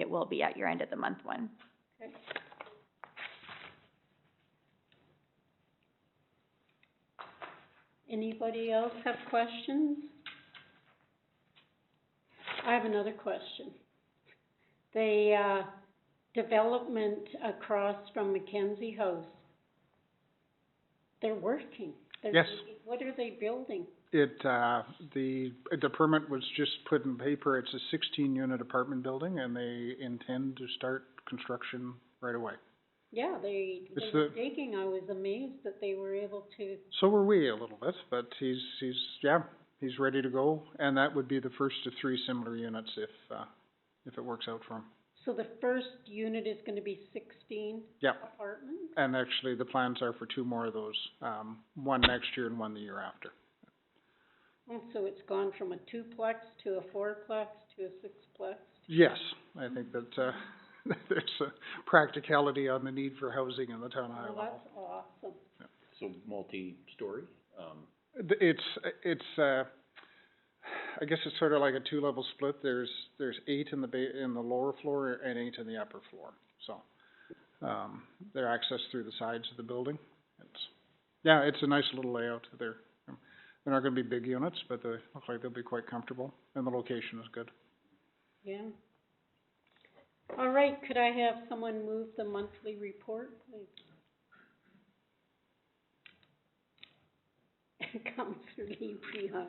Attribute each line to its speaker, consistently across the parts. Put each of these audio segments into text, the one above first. Speaker 1: it will be at your end of the month one.
Speaker 2: Anybody else have questions? I have another question. The, uh, development across from Mackenzie House, they're working. They're
Speaker 3: Yes.
Speaker 2: building- What are they building?
Speaker 3: It, uh, the, the permit was just put in paper, it's a sixteen-unit apartment building, and they intend to start construction right away.
Speaker 2: Yeah, they, they
Speaker 3: It's
Speaker 2: were
Speaker 3: the-
Speaker 2: digging. I was amazed that they were able to,
Speaker 3: So were we a little bit, but he's, he's, yeah, he's ready to go, and that would be the first of three similar units if, uh, if it works out for him.
Speaker 2: so the first unit is gonna be sixteen
Speaker 3: Yeah,
Speaker 2: apartments?
Speaker 3: and actually, the plans are for two more of those, um, one next year and one the year after.
Speaker 2: And Oh, so it's gone from a twoplex to a fourplex to a sixplex?
Speaker 3: Yes, I think that, uh, there's a practicality on the need for housing in the town of High
Speaker 2: Well,
Speaker 3: Level.
Speaker 2: Oh, that's awesome.
Speaker 4: So multi-story, um,
Speaker 3: Th- It's, it's, uh, I guess it's sort of like a two-level split. There's, there's eight in the ba- in the lower floor and eight in the upper floor. So, um, they're accessed through the sides of the building. It's, yeah, it's a nice little layout. They're, they're not gonna be big units, but they look like they'll be quite comfortable and the location is good.
Speaker 2: Yeah. All right, could I have someone move the monthly report, please? Counselor Lee Prihar.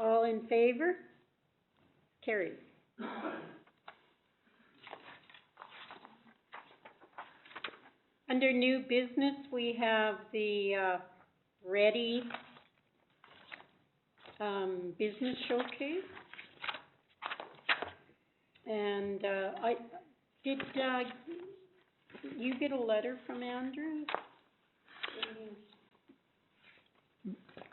Speaker 2: All in favor? Carried. Under new business, we have the, uh, Ready, um, Business Showcase. And, uh, I, did, uh, you get a letter from Andrew?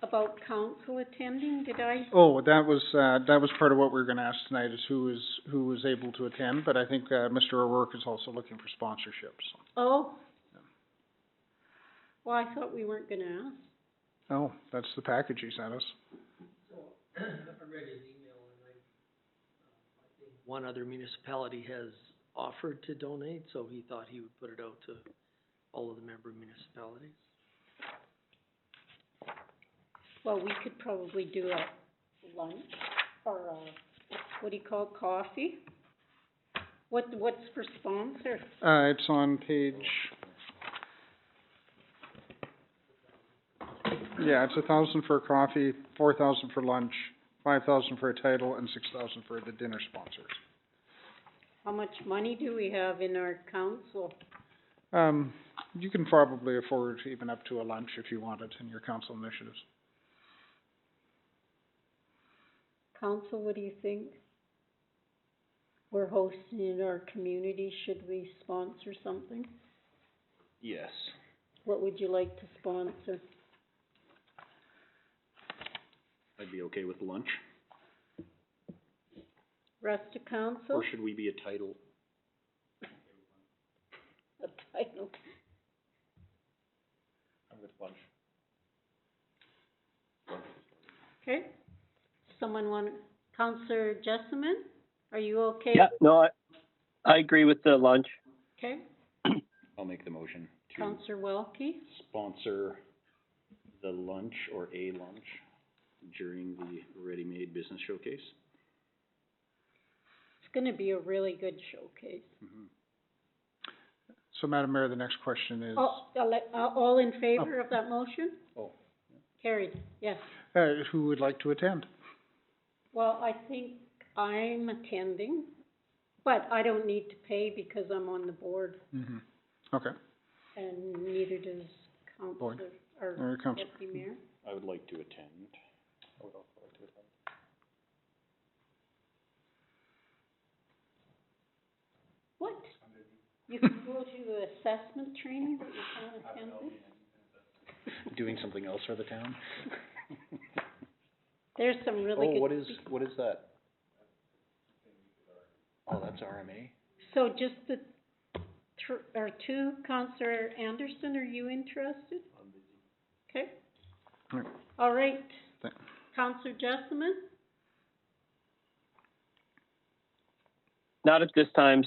Speaker 2: About council attending, did I?
Speaker 3: Oh, that was, uh, that was part of what we were gonna ask tonight is who is, who was able to attend, but I think, uh, Mr. O'Rourke is also looking for sponsorships.
Speaker 2: Oh. Well, I thought we weren't gonna ask.
Speaker 3: Oh, that's the package he sent us.
Speaker 5: one other municipality has offered to donate, so he thought he would put it out to all of the member municipalities.
Speaker 2: Well, we could probably do a lunch or a, what do you call it, coffee? What, what's for sponsor?
Speaker 3: Uh, it's on page, yeah, it's a thousand for coffee, four thousand for lunch, five thousand for a title, and six thousand for the dinner sponsors.
Speaker 2: How much money do we have in our council?
Speaker 3: Um, you can probably afford even up to a lunch if you want it in your council initiatives.
Speaker 2: Council, what do you think? We're hosting in our community, should we sponsor something?
Speaker 4: yes.
Speaker 2: What would you like to sponsor?
Speaker 4: I'd be okay with lunch,
Speaker 2: Rest of council?
Speaker 4: or should we be a title?
Speaker 2: A title.
Speaker 4: I'm with lunch.
Speaker 2: Okay. Someone want, Counselor Jessamine, are you okay?
Speaker 6: Yeah, no, I, I agree with the lunch.
Speaker 2: Okay.
Speaker 4: I'll make the motion to
Speaker 2: Counselor Welke?
Speaker 4: sponsor the lunch or a lunch during the ready-made business showcase.
Speaker 2: It's gonna be a really good showcase.
Speaker 4: Mm-hmm.
Speaker 3: So Madam Mayor, the next question is,
Speaker 2: All, I'll let- uh, all in favor of that motion?
Speaker 4: Oh.
Speaker 2: Carried, yes.
Speaker 3: uh, who would like to attend?
Speaker 2: Well, I think I'm attending, but I don't need to pay because I'm on the board
Speaker 3: Mm-hmm. Okay,
Speaker 2: and neither does Counselor or
Speaker 3: there it comes.
Speaker 2: Deputy Mayor.
Speaker 4: I would like to attend.
Speaker 2: What? You can go to assessment training, but you can't attend this?
Speaker 4: Doing something else for the town?
Speaker 2: There's some really
Speaker 4: Oh,
Speaker 2: good.
Speaker 4: what is, what is that? Oh, that's RMA?
Speaker 2: So just the, tr- or two, Counselor Anderson, are you interested? Okay.
Speaker 3: All right.
Speaker 2: All right,
Speaker 3: Thank-
Speaker 2: Counselor Jessamine?
Speaker 6: Not at this time,